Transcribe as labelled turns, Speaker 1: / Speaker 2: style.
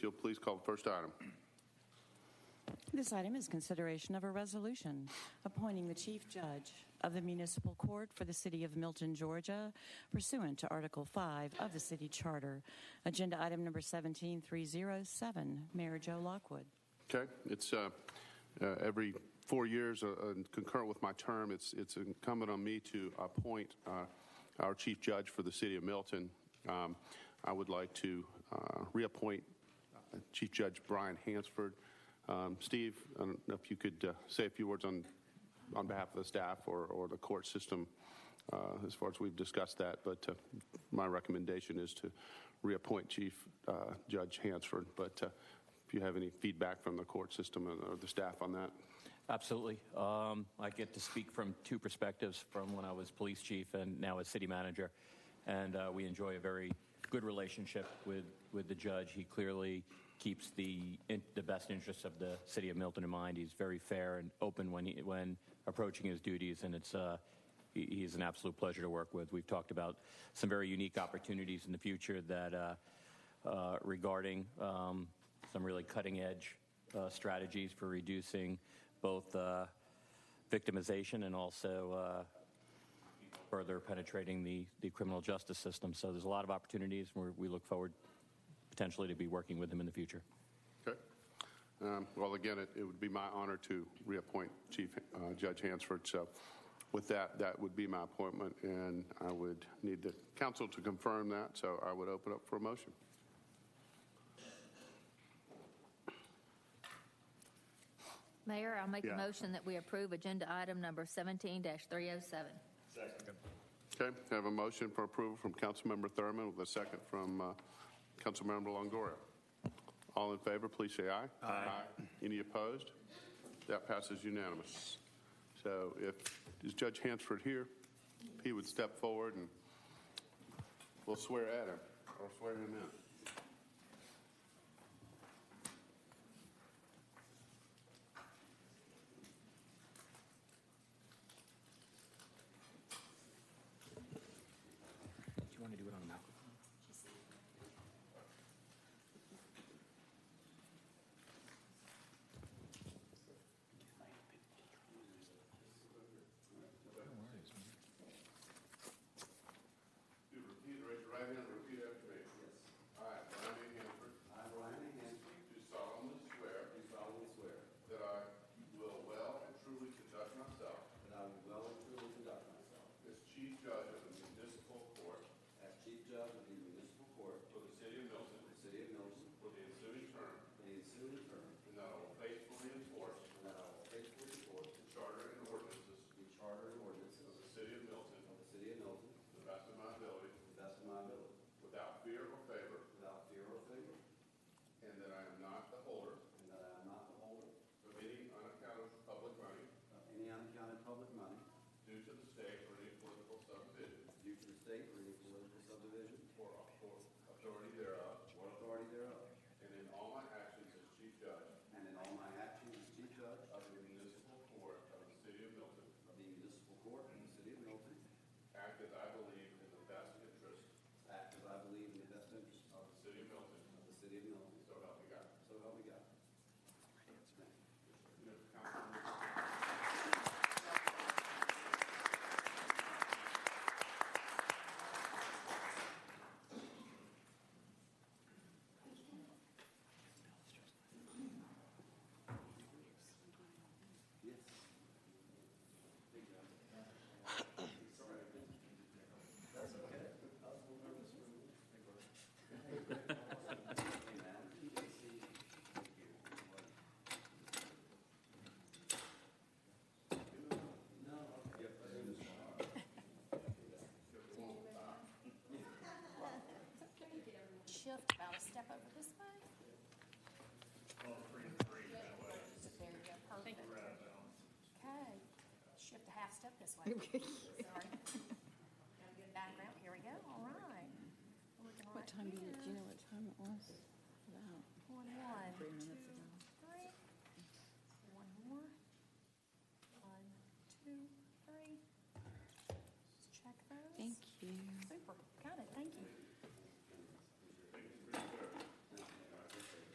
Speaker 1: You'll please call the first item.
Speaker 2: This item is consideration of a resolution appointing the Chief Judge of the Municipal Court for the City of Milton, Georgia pursuant to Article 5 of the City Charter. Agenda item number 17307, Mayor Joe Lockwood.
Speaker 1: Okay, it's uh, uh, every four years, uh, uh, concurrent with my term, it's it's incumbent on me to appoint uh, our chief judge for the city of Milton. Um, I would like to uh, reappoint uh, Chief Judge Brian Hansford. Um, Steve, I don't know if you could uh, say a few words on on behalf of the staff or, or the court system uh, as far as we've discussed that, but uh, my recommendation is to reappoint Chief uh, Judge Hansford. But uh, if you have any feedback from the court system or- or the staff on that.
Speaker 3: Absolutely. Um, I get to speak from two perspectives from when I was police chief and now as city manager. And uh, we enjoy a very good relationship with, with the judge. He clearly keeps the, in, the best interests of the city of Milton in mind. He's very fair and open when, he, when approaching his duties, and it's, uh, he, he's an absolute pleasure to work with. We've talked about some very unique opportunities in the future that uh, uh, regarding um, some really cutting edge uh, strategies for reducing both uh, victimization and also uh, further penetrating the, the criminal justice system. So there's a lot of opportunities, and we're, we look forward potentially to be working with him in the future.
Speaker 1: Okay. Um, Well, again, it it would be my honor to reappoint Chief uh, Judge Hansford. So with that, that would be my appointment, and I would need the council to confirm that, so I would open up for a motion.
Speaker 4: Mayor, I'll make
Speaker 1: Yeah.
Speaker 4: a motion that we approve agenda item number 17-307.
Speaker 1: Okay, I have a motion for approval from Councilmember Thurman with a second from uh, Councilmember Longoria. All in favor, please say aye. Aye. Any opposed? That passes unanimous. So if, is Judge Hansford here? If He would step forward and we'll swear at him, or swear him in.
Speaker 3: Do you want to do it on the microphone?
Speaker 1: You repeat, raise your right hand, and repeat after me. Yes. I, Brian A. Hanford. I, Brian A. Hanford. Do solemnly swear. Do solemnly swear. That I will well and truly conduct myself. That I will well and truly conduct myself. As chief judge of the municipal court. As chief judge of the municipal court. For the city of Milton. For the city of Milton. For the ensuing term. For the ensuing term. And that I will faithfully enforce. And that I will faithfully enforce. The charter and ordinances. The charter and ordinances. Of the city of Milton. Of the city of Milton. To the best of my ability. To the best of my ability. Without fear or favor. Without fear or favor. And that I am not the holder. And that I am not the holder. Of any unaccounted public money. Of any unaccounted public money. Due to the state or any political subdivision. Due to the state or any political subdivision. Or or authority thereof. Or authority thereof. And in all my actions as chief judge. And in all my actions as chief judge. Of the municipal court of the city of Milton. Of the municipal court of the city of Milton. Act as I believe in the best interest. Act as I believe in the best interest. Of the city of Milton. Of the city of Milton. So help me God. So help me God.
Speaker 5: shift about a step over this way. There you go, perfect. Okay, shift a half step this way. Sorry. Got a good background, here we go, all right. We're looking right
Speaker 2: What time do you,
Speaker 5: here.
Speaker 2: do you know what time it was?